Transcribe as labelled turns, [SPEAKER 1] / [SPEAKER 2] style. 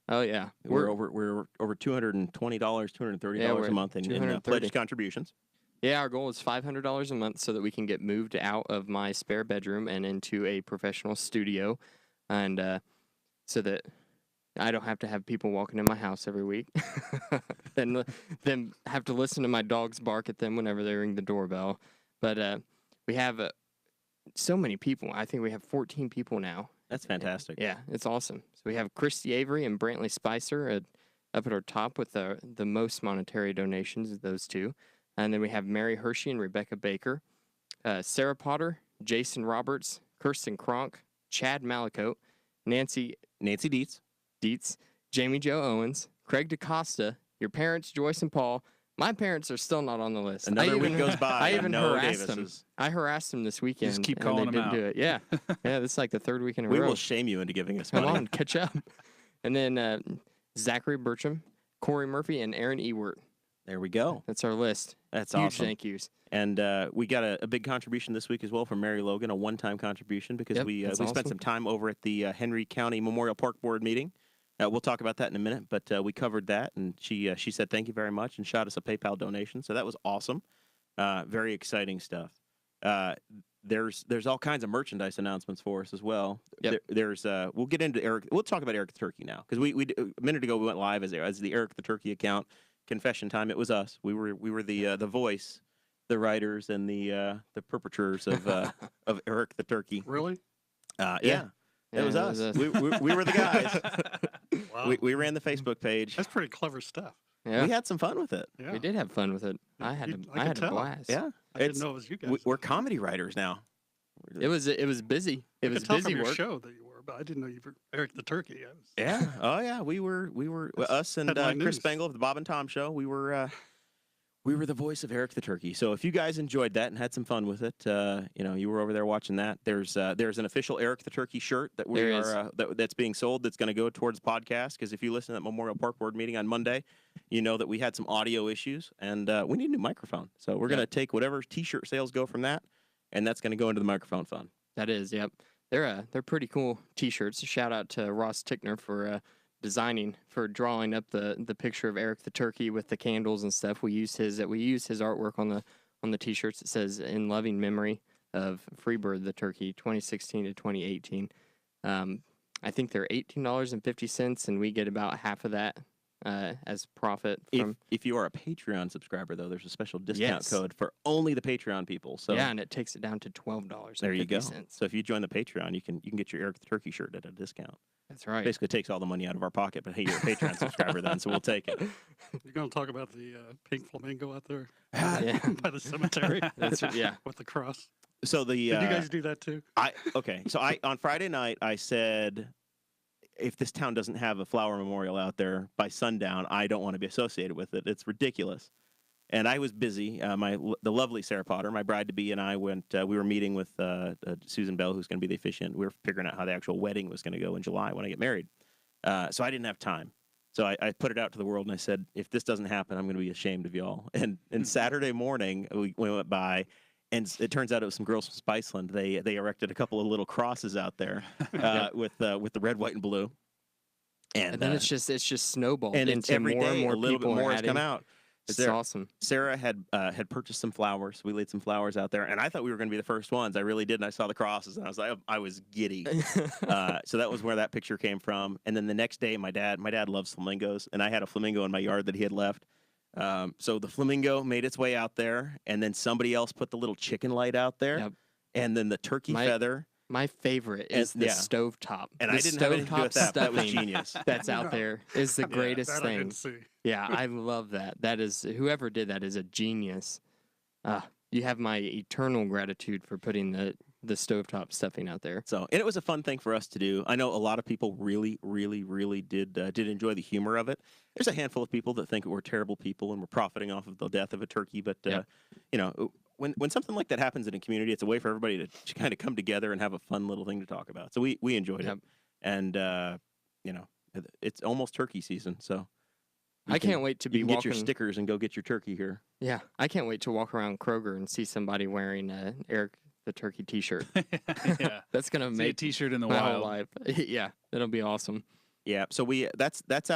[SPEAKER 1] Oh yeah,
[SPEAKER 2] We're, over we're over two hundred and twenty dollars, two hundred and thirty
[SPEAKER 1] Yeah,
[SPEAKER 2] dollars
[SPEAKER 1] we're
[SPEAKER 2] a month in, in uh,
[SPEAKER 1] 230.
[SPEAKER 2] pledged contributions.
[SPEAKER 1] yeah. Our goal is five hundred dollars a month so that we can get moved out of my spare bedroom and into a professional studio, and uh, so that I don't have to have people walking in my house every week. then li- then have to listen to my dogs bark at them whenever they ring the doorbell. But uh, we have uh, so many people. I think we have fourteen people now
[SPEAKER 2] That's fantastic.
[SPEAKER 1] Yeah, it's awesome. So we have Christy Avery and Brantley Spicer at, up at our top with the the most monetary donations of those two, and then we have Mary Hershey and Rebecca Baker, uh, Sarah Potter, Jason Roberts, Kirsten Kronk, Chad Malicote, Nancy
[SPEAKER 2] Nancy Dietz.
[SPEAKER 1] Dietz, Jamie Joe Owens, Craig DaCosta, your parents Joyce and Paul. My parents are still not on the list. I
[SPEAKER 2] Another week
[SPEAKER 1] even-
[SPEAKER 2] goes by.
[SPEAKER 1] I
[SPEAKER 2] and
[SPEAKER 1] even
[SPEAKER 2] no
[SPEAKER 1] harassed them.
[SPEAKER 2] Davises.
[SPEAKER 1] I harassed them this weekend.
[SPEAKER 3] keep
[SPEAKER 1] and
[SPEAKER 3] calling 'em
[SPEAKER 1] they didn't
[SPEAKER 3] out.
[SPEAKER 1] do it. Yeah, yeah. This is like the third week in a
[SPEAKER 2] We
[SPEAKER 1] row.
[SPEAKER 2] will shame you into giving us
[SPEAKER 1] Come
[SPEAKER 2] money.
[SPEAKER 1] on, catch up. And then uh, Zachary Bertram, Corey Murphy, and Aaron Ewert.
[SPEAKER 2] There we go.
[SPEAKER 1] That's our list.
[SPEAKER 2] That's
[SPEAKER 1] Huge
[SPEAKER 2] awesome.
[SPEAKER 1] thank yous.
[SPEAKER 2] And uh, we got a, a big contribution this week as well from Mary Logan, a one-time contribution because
[SPEAKER 1] Yep,
[SPEAKER 2] we uh, we
[SPEAKER 1] that's
[SPEAKER 2] spent
[SPEAKER 1] awesome.
[SPEAKER 2] some time over at the uh, Henry County Memorial Park Board meeting. Uh, we'll talk about that in a minute, but uh, we covered that, and she uh, she said thank you very much and shot us a PayPal donation, so that was awesome. Uh, very exciting stuff. Uh, there's there's all kinds of merchandise announcements for us as well.
[SPEAKER 1] Yep.
[SPEAKER 2] There- there's uh, we'll get into Eric. We'll talk about Eric the Turkey now because we, we d- a minute ago we went live as as the Eric the Turkey account. Confession time. It was us. We were we were the uh, the voice, the writers and the uh, the perpetrators of uh, of Eric the Turkey.
[SPEAKER 3] Really?
[SPEAKER 2] Uh,
[SPEAKER 1] Yeah.
[SPEAKER 2] yeah, it was
[SPEAKER 1] that
[SPEAKER 2] us. We, we, we were the guys.
[SPEAKER 4] Wow.
[SPEAKER 2] we, we ran the Facebook page.
[SPEAKER 4] That's pretty clever stuff.
[SPEAKER 1] yeah,
[SPEAKER 2] We had some fun with it.
[SPEAKER 4] Yeah.
[SPEAKER 1] we did have fun with it.
[SPEAKER 4] Yeah,
[SPEAKER 1] I had
[SPEAKER 4] you-
[SPEAKER 1] a,
[SPEAKER 4] I
[SPEAKER 1] I
[SPEAKER 4] could
[SPEAKER 1] had a
[SPEAKER 4] tell.
[SPEAKER 1] blast.
[SPEAKER 2] Yeah,
[SPEAKER 4] I
[SPEAKER 2] It's-
[SPEAKER 4] didn't know it was you guys.
[SPEAKER 2] We, we're comedy writers now.
[SPEAKER 1] it was it was busy. It
[SPEAKER 4] I
[SPEAKER 1] was
[SPEAKER 4] could tell
[SPEAKER 1] busy
[SPEAKER 4] from your
[SPEAKER 1] work.
[SPEAKER 4] show that you were, but I didn't know you were Eric the Turkey. I was,
[SPEAKER 2] Yeah. Oh yeah. We were we were
[SPEAKER 4] That's
[SPEAKER 2] us and uh,
[SPEAKER 4] headline
[SPEAKER 2] Chris
[SPEAKER 4] news.
[SPEAKER 2] Spangle of the Bob and Tom Show. We were uh, we were the voice of Eric the Turkey. So if you guys enjoyed that and had some fun with it, uh, you know you were over there watching that. There's uh, there's an official Eric the Turkey shirt that we
[SPEAKER 1] There is.
[SPEAKER 2] are uh, that, that's being sold. That's going to go towards the podcast because if you listen to that Memorial Park Board meeting on Monday, you know that we had some audio issues and uh, we need a new microphone. So we're
[SPEAKER 1] Yeah.
[SPEAKER 2] going to take whatever T-shirt sales go from that, and that's going to go into the microphone fund.
[SPEAKER 1] That is, yep. They're uh, they're pretty cool t-shirts. Shout out to Ross Tickner for uh, designing for drawing up the the picture of Eric the Turkey with the candles and stuff. We use his we use his artwork on the on the t-shirts. It says in loving memory of Freebird the Turkey 2016 to 2018. Um, I think they're eighteen dollars and fifty cents, and we get about half of that uh, as profit
[SPEAKER 2] If,
[SPEAKER 1] from.
[SPEAKER 2] if you are a Patreon subscriber, though, there's a special discount
[SPEAKER 1] Yes.
[SPEAKER 2] code for only the Patreon people. So
[SPEAKER 1] yeah, and it takes it down to twelve dollars.
[SPEAKER 2] there you go. So if you join the Patreon, you can you can get your Eric the Turkey shirt at a discount.
[SPEAKER 1] That's right.
[SPEAKER 2] Basically, takes all the money out of our pocket. But hey, you're a Patreon subscriber then, so we'll take it.
[SPEAKER 4] you're going to talk about the uh, pink flamingo out there
[SPEAKER 1] yeah,
[SPEAKER 4] by the cemetery
[SPEAKER 1] that's yeah.
[SPEAKER 4] with the cross.
[SPEAKER 2] So the
[SPEAKER 4] Did
[SPEAKER 2] uh,
[SPEAKER 4] you guys do that too?
[SPEAKER 2] I okay. So I on Friday night I said, if this town doesn't have a flower memorial out there by sundown, I don't want to be associated with it. It's ridiculous. And I was busy. Uh, my l- the lovely Sarah Potter, my bride to be, and I went. Uh, we were meeting with uh, uh, Susan Bell, who's going to be the officiant. We were figuring out how the actual wedding was going to go in July when I get married. Uh, so I didn't have time. So I, I put it out to the world and I said, if this doesn't happen, I'm going to be ashamed of y'all. And
[SPEAKER 1] Mm-hmm.
[SPEAKER 2] and Saturday morning uh, we, we went by, and s- it turns out it was some girls from Spiceland. They they erected a couple of little crosses out there uh, with uh, with the red, white, and blue. And,
[SPEAKER 1] And, then
[SPEAKER 2] uh,
[SPEAKER 1] it's just it's just snowballed
[SPEAKER 2] and it's
[SPEAKER 1] into
[SPEAKER 2] every
[SPEAKER 1] more
[SPEAKER 2] day
[SPEAKER 1] and more
[SPEAKER 2] a little bit
[SPEAKER 1] people
[SPEAKER 2] more
[SPEAKER 1] are
[SPEAKER 2] has come
[SPEAKER 1] adding-
[SPEAKER 2] out.
[SPEAKER 1] It's
[SPEAKER 2] Sarah,
[SPEAKER 1] awesome.
[SPEAKER 2] Sarah had uh, had purchased some flowers. We laid some flowers out there, and I thought we were going to be the first ones. I really did, and I saw the crosses, and I was like, I was giddy. uh, so that was where that picture came from. And then the next day, my dad, my dad loves flamingos, and I had a flamingo in my yard that he had left. Um, so the flamingo made its way out there, and then somebody else put the little chicken light out there,
[SPEAKER 1] Yep.
[SPEAKER 2] and then the turkey
[SPEAKER 1] My-
[SPEAKER 2] feather.
[SPEAKER 1] My favorite
[SPEAKER 2] And-
[SPEAKER 1] is the
[SPEAKER 2] yeah.
[SPEAKER 1] stove stovetop.
[SPEAKER 2] And
[SPEAKER 1] the
[SPEAKER 2] I didn't have anything to do
[SPEAKER 1] stovetop
[SPEAKER 2] with that. but That was
[SPEAKER 1] stuffing
[SPEAKER 2] genius.
[SPEAKER 1] That's out there is the
[SPEAKER 4] Yeah,
[SPEAKER 1] greatest
[SPEAKER 4] that I
[SPEAKER 1] thing.
[SPEAKER 4] didn't see.
[SPEAKER 1] Yeah, I love that. That is whoever did that is a genius. Uh, you have my eternal gratitude for putting the the stovetop stuffing out there.
[SPEAKER 2] So, and it was a fun thing for us to do. I know a lot of people really, really, really did uh, did enjoy the humor of it. There's a handful of people that think we're terrible people and we're profiting off of the death of a turkey, but uh,
[SPEAKER 1] Yeah.
[SPEAKER 2] you know, when when something like that happens in a community, it's a way for everybody to, kind of come together and have a fun little thing to talk about. So we we enjoyed
[SPEAKER 1] Yep.
[SPEAKER 2] it, and uh, you know, it- it's almost turkey season, so you
[SPEAKER 1] I
[SPEAKER 2] can-
[SPEAKER 1] can't wait to
[SPEAKER 2] you
[SPEAKER 1] be
[SPEAKER 2] can get
[SPEAKER 1] walking.
[SPEAKER 2] your stickers and go get your turkey here.
[SPEAKER 1] Yeah, I can't wait to walk around Kroger and see somebody wearing a Eric the Turkey T-shirt.
[SPEAKER 3] yeah.
[SPEAKER 1] That's gonna
[SPEAKER 3] See a
[SPEAKER 1] make
[SPEAKER 3] T-shirt in the
[SPEAKER 1] my whole
[SPEAKER 3] wild.
[SPEAKER 1] life. yeah, that'll be awesome.
[SPEAKER 2] Yeah. So we uh, that's that's